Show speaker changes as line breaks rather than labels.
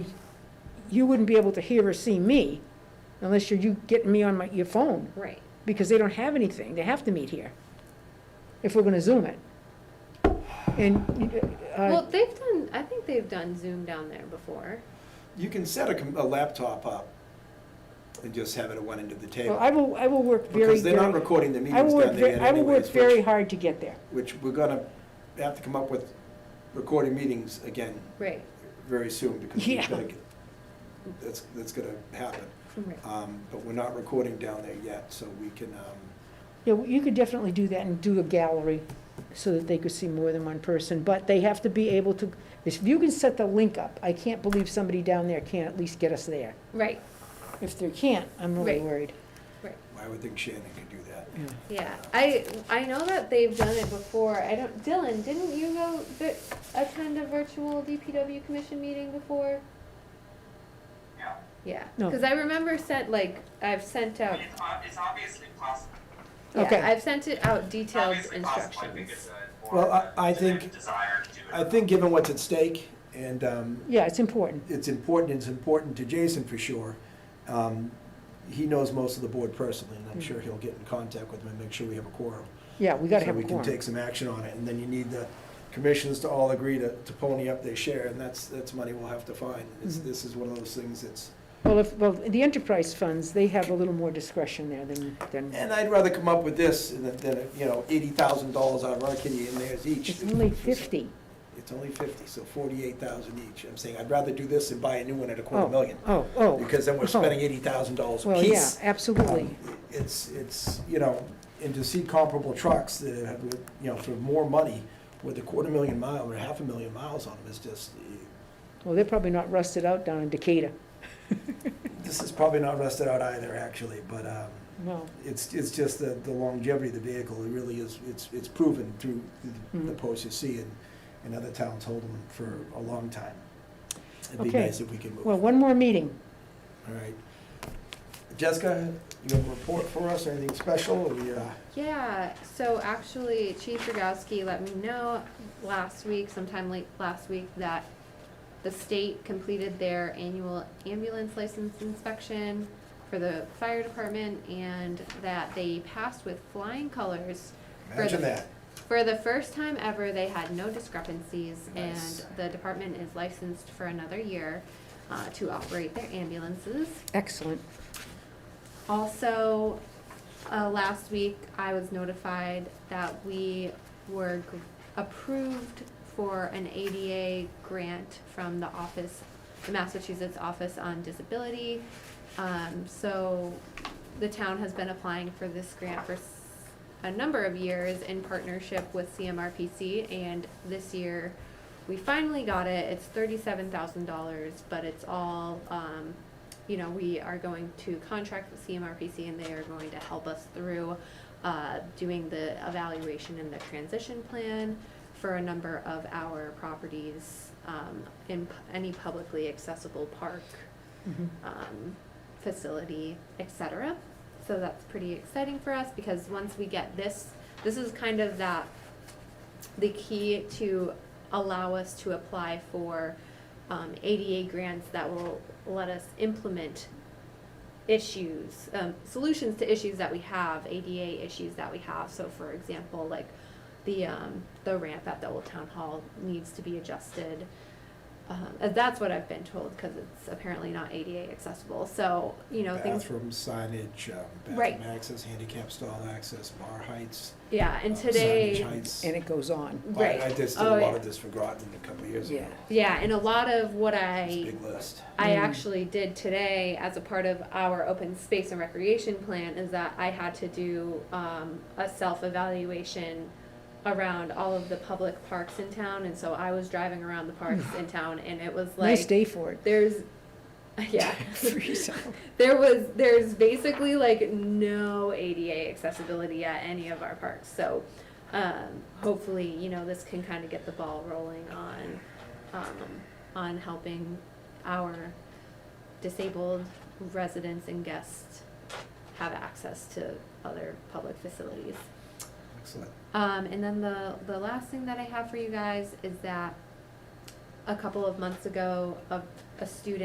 you wouldn't be able to hear or see me unless you're, you getting me on my, your phone,
Right.
because they don't have anything, they have to meet here, if we're gonna Zoom it. And,
Well,
uh,
they've done, I think they've done Zoom down there before.
You can set a, com- a laptop up and just have it at one end of the
well,
table.
I will, I will work very,
Because they're not
very,
recording the
I
meetings
will
down
work,
there
ve-
yet
I will work
anyways,
very
which,
hard to get there.
which we're gonna have to come up with recording meetings again
Right.
very soon because we've
Yeah.
gotta get- that's, that's gonna happen.
Right.
Um, but we're not recording down there yet, so we can, um,
Yeah, well, you could definitely do that and do a gallery so that they could see more than one person, but they have to be able to, if you can set the link up, I can't believe somebody down there can't at least get us there.
Right,
If they can't, I'm really
Right.
worried.
right.
I would think Shannon could do that.
Yeah, I, I know that they've done it before. I don't, Dylan, didn't you go vi- attend a virtual DPW commission meeting before?
Yeah,
Yeah,
No.
because I remember sent, like, I've sent
I
out,
mean, it's, ob- it's obviously possible.
Okay.
yeah, I've sent it out detailed
Obviously possible, I think it's
instructions.
a more
Well, I-
of a-
I
it's a
think-
Desire to do it.
I think given what's at stake and, um,
Yeah, it's important.
it's important, it's important to Jason for sure. Um, He knows most of the board personally, and I'm sure he'll get in contact with them and make sure we have a quorum.
Yeah, Mm. we gotta
So
have a
we can
quorum.
take some action on it, and then you need the commissions to all agree to, to pony up their share, and that's, that's money we'll have to find. It's,
Mhm.
this is one of those things that's,
Well, if, well, the enterprise funds, they have a little more discretion there than, than,
and I'd rather come up with this than, than, you know, eighty thousand dollars out of our kitty and theirs each.
it's only fifty.
It's only fifty, so forty-eight thousand each. I'm saying, I'd rather do this than buy a new one at a quarter
Oh,
million,
Oh, oh.
because then we're
oh.
spending eighty thousand dollars
Well, yeah,
apiece.
absolutely.
Um, It's, it's, you know, and to see comparable trucks that have, you know, for more money with a quarter million mile or half a million miles on them is just, eh,
Well, they're probably not rusted out down in Decatur.
this is probably not rusted out either, actually, but um,
No.
it's, it's just the, the longevity of the vehicle, it really is, it's, it's proven through the- the
Mhm.
posts you see and, and other towns hold them for a long time. It'd be
Okay.
nice if we could move,
Well,
all
one more meeting.
right. Jessica, you have a report for us, anything special, or we, uh?
Yeah, so actually Chief Rogowski let me know last week, sometime late last week, that the state completed their annual ambulance license inspection for the fire department and that they passed with flying colors. for the-
imagine that.
For the first time ever, they had no discrepancies
Nice.
and the department is licensed for another year uh, to operate their ambulances.
Excellent.
Also, uh, last week, I was notified that we were gr- approved for an ADA grant from the office, the Massachusetts Office on Disability. Um, so the town has been applying for this grant for s- a number of years in partnership with CMRPC, and this year, we finally got it. It's thirty-seven thousand dollars, but it's all, um, you know, we are going to contract with CMRPC and they are going to help us through uh, doing the evaluation and the transition plan for a number of our properties um, in p- any publicly accessible park,
Mhm.
um, facility, et cetera. So that's pretty exciting for us because once we get this, this is kind of that, the key to allow us to apply for um, ADA grants that will let us implement issues, um, solutions to issues that we have, ADA issues that we have. So, for example, like the um, the ramp at the old town hall needs to be adjusted. Um, and that's what I've been told because it's apparently not ADA accessible. So, you know, things
Bathroom signage, um,
Right.
bathroom access, handicap stall access, bar heights.
Yeah, and
uh,
today,
Signage heights.
And it goes on.
I-
right.
I just did
oh,
a lot
yeah.
of this for Groton a couple of years ago.
Yeah.
Yeah, and a lot of what
It's a
I
big list.
I
Mm.
actually did today as a part of our open space and recreation plan is that I had to do um, a self evaluation around all of the public parks in town, and so I was driving around the parks in town, and it was like
Nice day for it.
there's yeah
Freeze out.
there was there's basically like no ADA accessibility at any of our parks. So um, hopefully, you know, this can kind of get the ball rolling on um, on helping our disabled residents and guests have access to other public facilities.
Excellent.
Um, and then the, the last thing that I have for you guys is that a couple of months ago, a, a student.